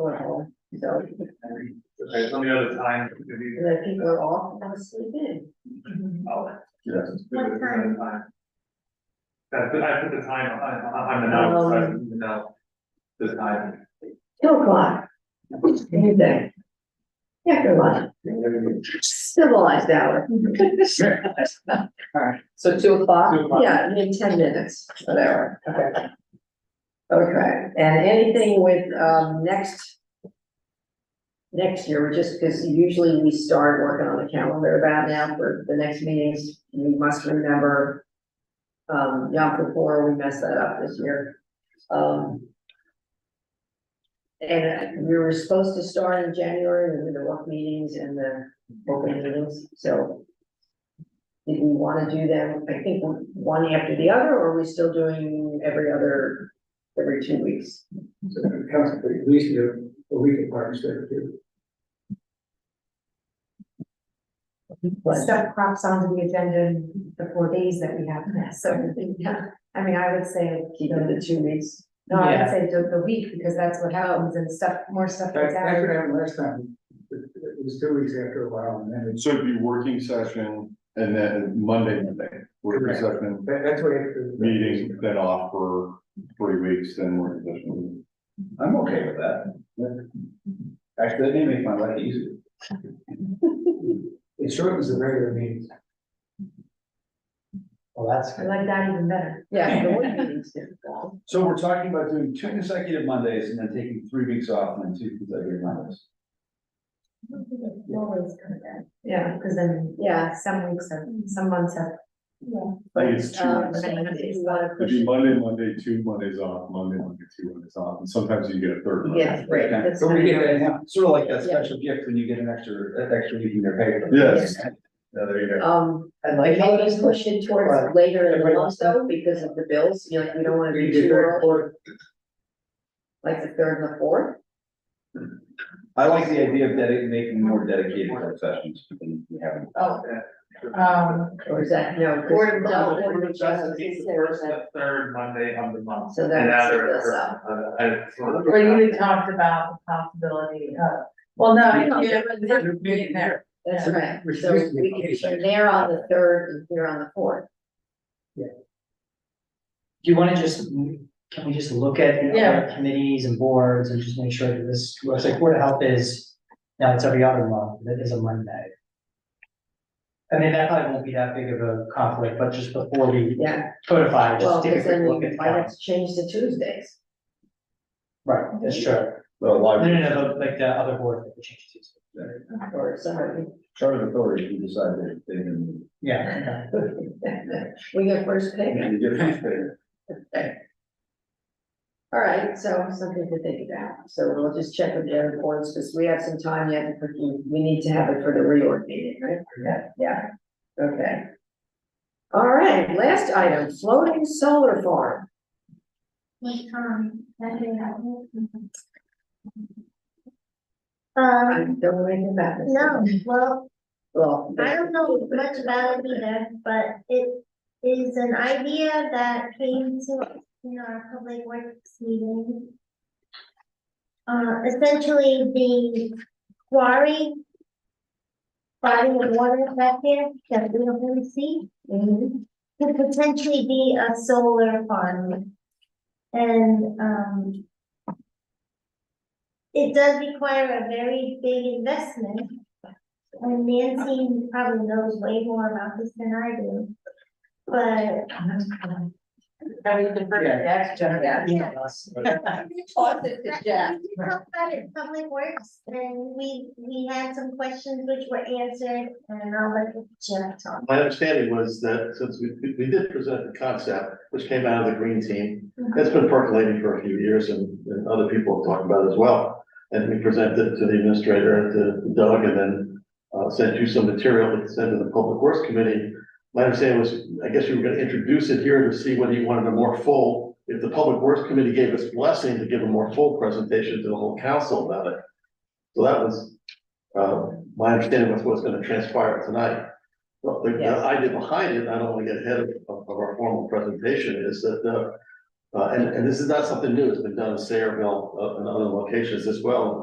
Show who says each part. Speaker 1: are home, so,
Speaker 2: Okay, some of the other times, it could be.
Speaker 1: the people are off, I was sleeping.
Speaker 2: oh,
Speaker 3: Yes.
Speaker 4: What time?
Speaker 2: That's, I put the time on, on the note, so I didn't know the time.
Speaker 1: Two o'clock. Anything. Yeah, good one, civilized hour. Alright, so two o'clock?
Speaker 2: Two o'clock.
Speaker 1: Yeah, in ten minutes, whatever.
Speaker 5: Okay.
Speaker 1: Okay, and anything with, um, next. Next year, we're just, because usually we start working on the calendar about now for the next meetings, we must remember. Um, Yom Kippur, we messed that up this year. Um. And we were supposed to start in January with the work meetings and the open meetings, so. Did we wanna do them, I think one after the other, or are we still doing every other every two weeks.
Speaker 6: So it comes to at least a, a week apart instead of two.
Speaker 1: But
Speaker 4: Stuff crops onto the agenda in the four days that we have now, so, yeah, I mean, I would say,
Speaker 1: keep it to two weeks.
Speaker 4: no, I
Speaker 5: Yeah.
Speaker 4: would say the, the week, because that's what happens, and stuff, more stuff
Speaker 6: That-
Speaker 4: gets
Speaker 6: That's what
Speaker 4: added.
Speaker 6: happened last time, it it was two weeks after a while, and then it's,
Speaker 3: So it'd be working session and then Monday, Monday, working
Speaker 6: Correct.
Speaker 3: session,
Speaker 6: that, that's what. it-
Speaker 3: meeting, then off for three weeks, then working session.
Speaker 7: I'm okay with that. Actually, that may make my life easier.
Speaker 6: It shortens the regular meetings.
Speaker 5: Well, that's
Speaker 4: I
Speaker 5: good.
Speaker 4: like that even better.
Speaker 1: Yeah, the one meeting's difficult.
Speaker 7: So we're talking about doing two consecutive Mondays and then taking three weeks off and then two consecutive Mondays.
Speaker 4: Always kind of bad. Yeah, because then, yeah, some weeks have, some months have.
Speaker 3: I think it's two
Speaker 1: Um,
Speaker 3: weeks.
Speaker 1: so if you wanna
Speaker 3: It'd
Speaker 1: push
Speaker 3: be
Speaker 1: it,
Speaker 3: Monday, Monday, two Mondays off, Monday, Monday, two Mondays off, and sometimes you get a third. Monday.
Speaker 1: Yes, right, that's
Speaker 7: So we
Speaker 1: kind
Speaker 7: get
Speaker 1: of-
Speaker 7: that, yeah, sort of like that
Speaker 1: Yeah.
Speaker 7: special gift when you get an extra, an extra week in your pay. for it.
Speaker 3: Yes.
Speaker 7: Yeah, there you go.
Speaker 1: Um,
Speaker 5: I
Speaker 1: like
Speaker 5: like how
Speaker 1: maybe
Speaker 5: this
Speaker 1: push it towards later in the month though, because of the bills, you know, like we don't wanna
Speaker 6: We
Speaker 1: do
Speaker 6: did
Speaker 1: too
Speaker 6: that
Speaker 1: early,
Speaker 6: for-
Speaker 1: like the third and the fourth.
Speaker 7: I like the idea of dedicating, making more dedicated work sessions than we have.
Speaker 1: Oh.
Speaker 5: Um,
Speaker 1: Or is that, no. 'cause-
Speaker 5: Or no,
Speaker 1: no,
Speaker 2: Or
Speaker 1: or
Speaker 2: the
Speaker 1: just-
Speaker 2: best is the first, and the third Monday of the month.
Speaker 1: So that
Speaker 2: And
Speaker 1: would
Speaker 2: after
Speaker 1: set
Speaker 2: the
Speaker 1: us
Speaker 2: first,
Speaker 1: up.
Speaker 2: uh, I sort of-
Speaker 5: but you had talked about the possibility of, well, no, you haven't been there.
Speaker 1: That's
Speaker 5: Yeah.
Speaker 1: right,
Speaker 6: Which
Speaker 1: so
Speaker 6: used to be
Speaker 1: we can,
Speaker 6: on the
Speaker 1: you're
Speaker 6: second.
Speaker 1: there on the third and here on the fourth.
Speaker 5: Do you wanna just, can we just look at the other committees and boards and just make sure that this, it's like Board of Health is, now it's every other month, that is a Monday. I mean, that probably won't be that big of a conflict, but just before we
Speaker 1: Yeah,
Speaker 5: codify,
Speaker 1: well,
Speaker 5: just take a
Speaker 1: because
Speaker 5: quick
Speaker 1: then
Speaker 5: look
Speaker 1: we
Speaker 5: at the
Speaker 1: might have
Speaker 5: calendar.
Speaker 1: to change to Tuesdays.
Speaker 5: Right, that's true.
Speaker 7: Well,
Speaker 5: No, no,
Speaker 7: library,
Speaker 5: no, but like the other board that we changed to.
Speaker 1: Or somebody,
Speaker 7: charter authority, you decide that they can.
Speaker 5: Yeah, okay.
Speaker 1: we get first pick.
Speaker 7: And you get paid.
Speaker 1: All right, so something to think about. So we'll just check with the other boards, because we have some time yet, but we we need to have it for the reorg meeting, right? Yeah, yeah, okay. All right, last item, floating solar farm.
Speaker 4: Like, um, that day
Speaker 1: I
Speaker 8: Um,
Speaker 1: don't know anything about this.
Speaker 8: no, well,
Speaker 1: Well.
Speaker 8: I don't know much about it either, but it is an idea that came to, us in our public works meeting. Uh, essentially the quarry. Body of water back there that we don't really see.
Speaker 1: Mhm.
Speaker 8: could potentially be a solar farm. And, um, it does require a very big investment. And Nancy probably knows way more about this than I do. But
Speaker 5: Yeah, that's generally.
Speaker 8: we
Speaker 1: Toss it to Jeff.
Speaker 8: talked about it in Public Works and we, we had some questions which were answered and I'll let Jeff talk.
Speaker 9: My understanding was that since we, we- we did present the concept, which came out of the green team, it's been percolating for a few years and, and other people have talked about it as well. And we presented to the administrator and to Doug and then, uh, sent you some material that sent to the public works committee. My understanding was, I guess you were gonna introduce it here to see whether you wanted a more full, if the public works committee gave us blessing to give a more full presentation to the whole council about it. So that was, uh, my understanding was what's gonna transpire tonight. Well, the
Speaker 1: Yes.
Speaker 9: the idea behind it, I don't want to get ahead of, of of our formal presentation, is that, uh, Uh, and, and this is not something new, it's been done in Sayreville, uh, and other locations as well,